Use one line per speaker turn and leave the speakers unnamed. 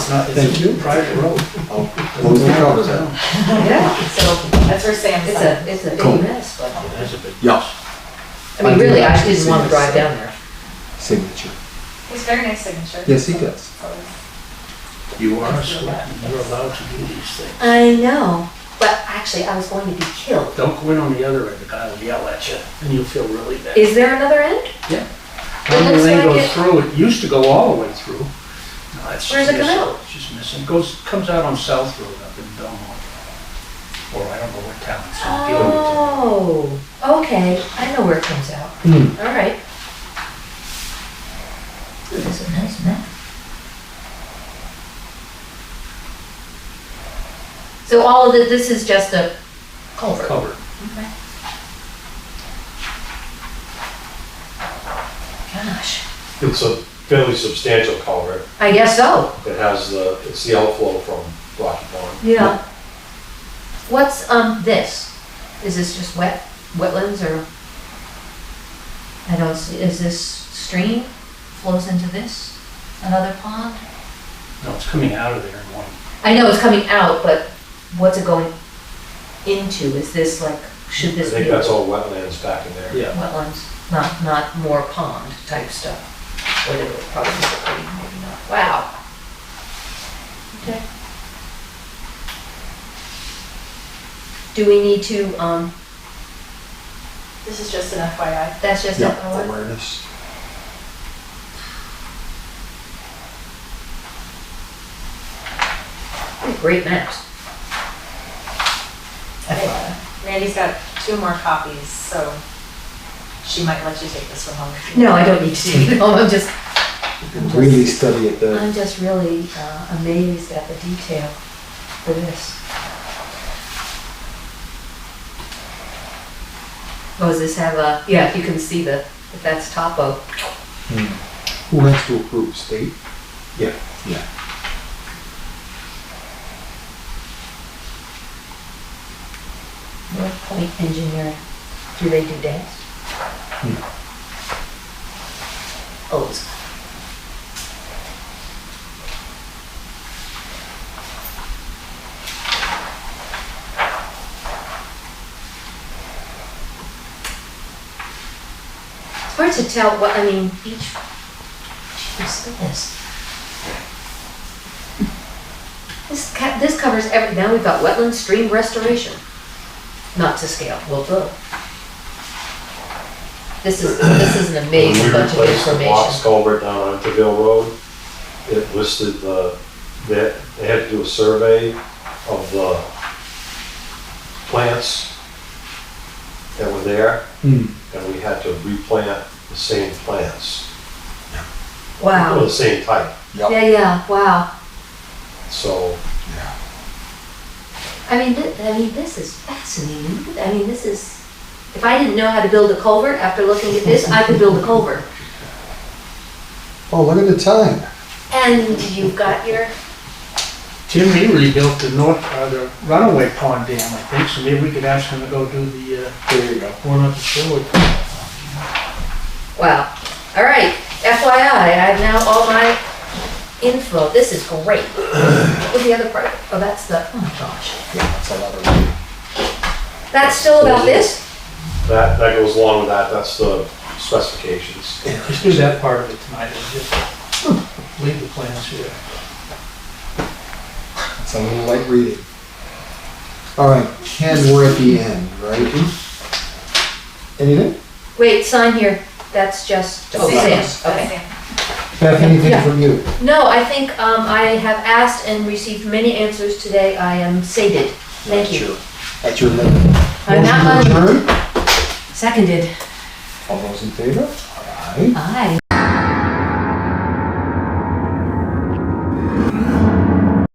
not,
Thank
it's
you.
a Uh, private road.
What was the covers at?
Yeah,
So that's where Sam's
it's
at.
a, it's a
Cool.
big mess, but,
That's a big,
Yes.
I mean, really, I didn't want to drive down there.
Signature.
He's very nice signature.
Yes, he does.
you are a selectman, you're allowed to do these things.
I know, but actually, I was going to be killed.
Don't go in on the other end, the guy will yell at you, and you'll feel really bad.
Is there another end?
Tiny
looks
lane
like
goes
it-
through, it used to go all the way through. No, it's
Where does it
just-
come out?
it's Just missing, goes, comes out on South Road up in Belmont. Or I don't know what town it's in. Gilroy.
Oh, okay, I know where it comes out.
Hmm.
All right.
That's a nice man.
So all of it, this is just a culvert?
Covered.
Gosh,
It's a fairly substantial culvert.
I guess so,
It has the, it's the outflow from Rocky Pond.
yeah. What's, um, this? Is this just wet, wetlands or? I don't see, is this stream flows into this, another pond?
No, it's coming out of there in one.
I know it's coming out, but what's it going into? Is this like, should
I
this be?
think that's all wetlands back in there.
Yeah.
wetlands, not, not more pond type stuff. Whether it probably is pretty, maybe not. Wow. Okay. Do we need to, um,
This is just an FYI.
that's just
Yeah,
FYI?
awareness.
Great maps.
Randy's got two more copies, so she might let you take this one home. if you
No,
want.
I don't need to take it home, I'm just,
Really study it then.
I'm just really uh, amazed at the detail for this. Oh, does this have a, yeah, you can see the, if that's topo.
Who has to approve, state? Yeah. Yeah.
North Point Engineering, do they do dance? Oh, it's- It's hard to tell what, I mean, each, jeez, goodness. This ca, this covers every, now we've got wetland stream restoration not to scale, well, boom. This is, this is an
When
amazing
we
bunch of
replaced the Fox
information.
culvert down on Interville Road, it listed the, that, they had to do a survey of the plants that were there,
Hmm.
and we had to replant the same plants. Well,
Wow,
the same type,
yeah, yeah, wow.
so.
I mean, thi- I mean, this is fascinating. I mean, this is, if I didn't know how to build a culvert after looking at this, I could build a culvert.
Oh, look at the time.
And you've got your,
Tim, he rebuilt the north, uh, the runaway pond dam, I think, so maybe we could ask him to go do the, uh,
There you go.
one up the shore.
wow. All right, FYI, I have now all my info. This is great. What was the other part? Oh, that's the, oh my gosh.
Yeah, that's a lot of reading.
That's still about this?
That, that goes along with that, that's the specifications.
Just do that part of it tonight, and just leave the plans here.
It's a little light reading. All right, Ken, we're at the end, right? Anything?
Wait, sign here. That's just, oh, Sam,
Sam.
okay.
Sam.
Beth, anything
Yeah.
from you?
No, I think, um, I have asked and received many answers today. I am sated. Thank you.
At your limit.
I'm not
Motion to adjourn?
Seconded.
All those in favor? Aye.
Aye.